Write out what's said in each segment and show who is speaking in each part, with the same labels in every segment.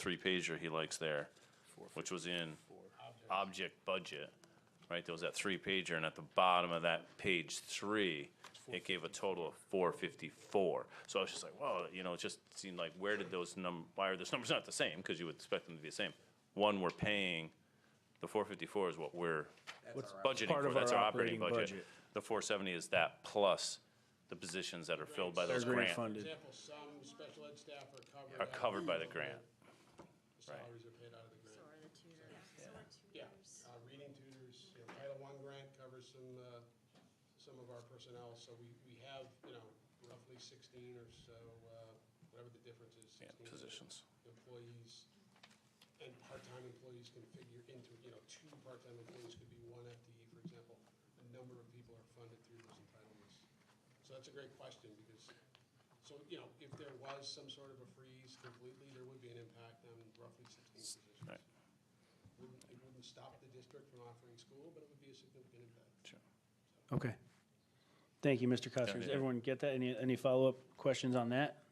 Speaker 1: three pager he likes there, which was in object budget, right? There was that three pager, and at the bottom of that page three, it gave a total of four fifty-four. So I was just like, whoa, you know, it just seemed like, where did those num, why are those numbers not the same? Because you would expect them to be the same. One, we're paying, the four fifty-four is what we're budgeting
Speaker 2: Part
Speaker 1: for,
Speaker 2: of
Speaker 1: that's
Speaker 2: our
Speaker 1: our operating
Speaker 2: operating
Speaker 1: budget.
Speaker 2: budget.
Speaker 1: The four seventy is that plus the positions that are filled by those
Speaker 2: They're
Speaker 1: grants
Speaker 2: grant funded.
Speaker 3: Example, some special ed staff are covered.
Speaker 1: are
Speaker 3: out of
Speaker 1: covered by the
Speaker 3: the
Speaker 1: grant.
Speaker 3: Salaries are paid out of the grant.
Speaker 4: So are the tutors. So are
Speaker 3: Yeah, uh, reading tutors, you know, Title I grant covers some, uh, some of our personnel, so we, we have, you know, roughly sixteen or so, uh, whatever the difference is.
Speaker 1: Yeah,
Speaker 3: 16
Speaker 1: positions.
Speaker 3: Employees, and part-time employees can figure into, it. you know, two part-time employees could be one FTE, for example. A number of people are funded through those entitlements. So that's a great question, because, so, you know, if there was some sort of a freeze completely, there would be an impact on roughly sixteen positions
Speaker 1: Right.
Speaker 3: wouldn't, it wouldn't stop the district from offering school, but it would be a significant impact.
Speaker 1: Sure.
Speaker 2: Okay. Thank you, Mr. Custer. Does
Speaker 1: Yeah.
Speaker 2: everyone get that? Any, any follow-up questions on that?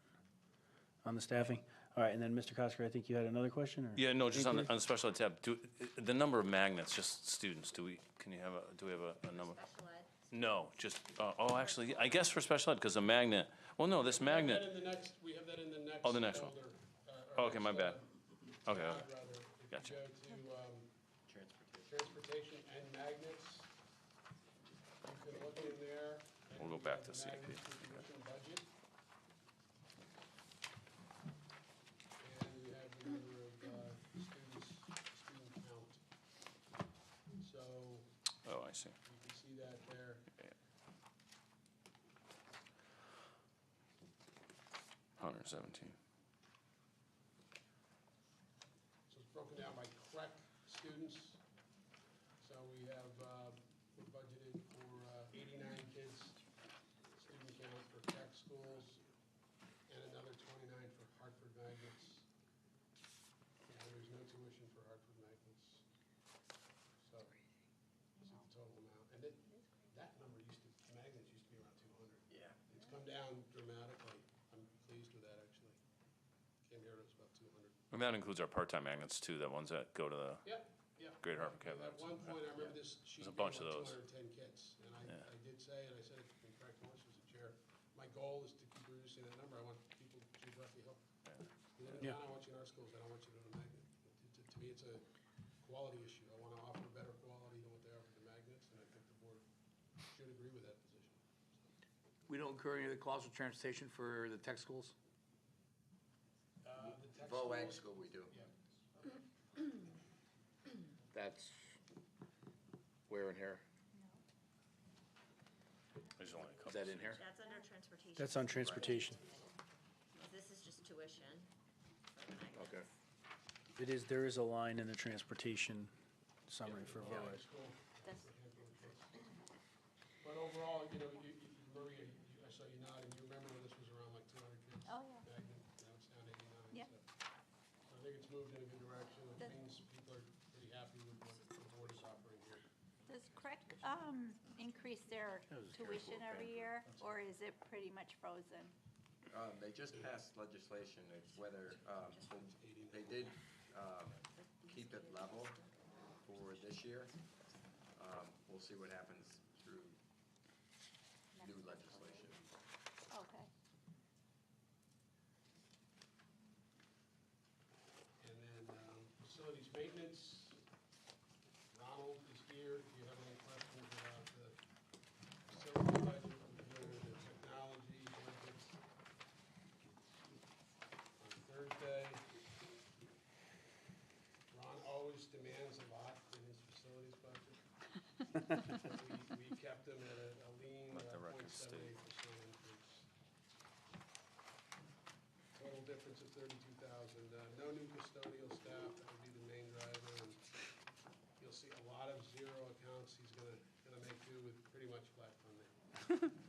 Speaker 2: On the staffing? All right, and then Mr. Cosker, I think you had another question or?
Speaker 1: Yeah, no, just on, the-
Speaker 2: inquiry?
Speaker 1: on the special ed tab, do, the number of magnets, just students, do we, can you have a, do we have a, a number?
Speaker 4: Special ed.
Speaker 1: No, just, uh, oh, actually, I guess for special ed, because a magnet, well, no, Oh, this
Speaker 3: We have
Speaker 1: magnet,
Speaker 3: that in the next, we have that in the next.
Speaker 1: Oh, the next one.
Speaker 3: folder, uh, or
Speaker 1: Oh, okay, my
Speaker 3: next,
Speaker 1: bad.
Speaker 3: uh,
Speaker 1: okay,
Speaker 3: tab,
Speaker 1: okay.
Speaker 3: rather. If you
Speaker 1: Gotcha.
Speaker 3: Go to, um, transportation and magnets. You can look in there. and
Speaker 1: We'll go
Speaker 3: you
Speaker 1: back to
Speaker 3: have the
Speaker 1: CIP.
Speaker 3: magnets distribution budget. And you have the number of, uh, students, student count. So
Speaker 1: oh, I see.
Speaker 3: you can see that there.
Speaker 1: Hundred and seventeen.
Speaker 3: So it's broken down by crack students. So we have, uh, we budgeted for uh, 89 kids, student count for crack schools, and another 29 for Hartford magnets. Yeah, there's no tuition for Hartford magnets. So, this is the total amount. And that, that number used to, magnets used to be around 200. Yeah. It's come down dramatically. I'm pleased with that, actually. Came here, it was about 200.
Speaker 1: And that includes our part-time magnets too, the ones that go to the,
Speaker 3: Yeah, yeah.
Speaker 1: Great Harbor
Speaker 3: At
Speaker 1: Cabinet.
Speaker 3: one point, I remember this sheet
Speaker 1: There's a
Speaker 3: being
Speaker 1: bunch
Speaker 3: like
Speaker 1: of
Speaker 3: two
Speaker 1: those.
Speaker 3: hundred and ten kids, and I, I did say, and I said, it in fact, Morris was the chair, my goal is to keep reducing that number, I want people geographically help. You live in
Speaker 2: Yeah.
Speaker 3: town, I want you in our schools, I don't want you to go to magnet. To- To, to me, it's a quality issue, I wanna offer better quality than what they offer to magnets, and I think the board should agree with that position.
Speaker 5: We don't incur any of the costs of transportation for the tech schools?
Speaker 3: Uh, the tech
Speaker 6: Vol Ag
Speaker 3: schools-
Speaker 6: school we do.
Speaker 3: Yeah.
Speaker 6: That's where in here?
Speaker 1: there's only a couple.
Speaker 6: Is that in here?
Speaker 4: That's
Speaker 2: That's on
Speaker 4: under transportation.
Speaker 2: transportation.
Speaker 4: This is just tuition. for the magnets.
Speaker 6: Okay.
Speaker 2: It is, there is a line in the transportation summary for
Speaker 3: Yeah,
Speaker 2: VOAG.
Speaker 3: school.
Speaker 4: That's-
Speaker 3: But overall, you know, you, you- Maria, you- I saw you nod, and you remember when this was around like two hundred kids?
Speaker 7: Oh, yeah.
Speaker 3: back then. Now it's down to eighty-nine.
Speaker 7: Yeah.
Speaker 3: so. So I think it's moved in a good direction, it
Speaker 7: That-
Speaker 3: means people are pretty happy with what the board is offering here.
Speaker 7: Does Craig um, increase their tuition every year, or is it pretty much frozen?
Speaker 6: Um, they just passed legislation, it's whether, um, they- they did, um, keep it level for this year. Um, we'll see what happens through new legislation.
Speaker 7: Okay.
Speaker 3: And then, um, facilities maintenance, Ronald is here, do you have any questions about the facility budget, the technology budgets? On Thursday, Ron always demands a lot in his facilities budget. We, we kept him at a a lean uh,
Speaker 1: Let the record
Speaker 3: point seven eight percent increase. Total difference of thirty-two thousand. Uh, No new custodial staff, that would be the main driver. and You'll see a lot of zero accounts. He's gonna, gonna make do with pretty much flat funding.
Speaker 7: Sorry.
Speaker 3: And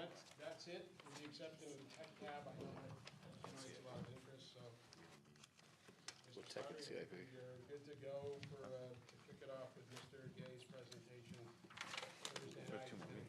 Speaker 3: that's, that's it, with the exception of the tech tab. I know that generates a lot of interest, so. What tech and CIP? You're good to go for, uh, to kick it off with Mr. Gay's presentation Thursday night.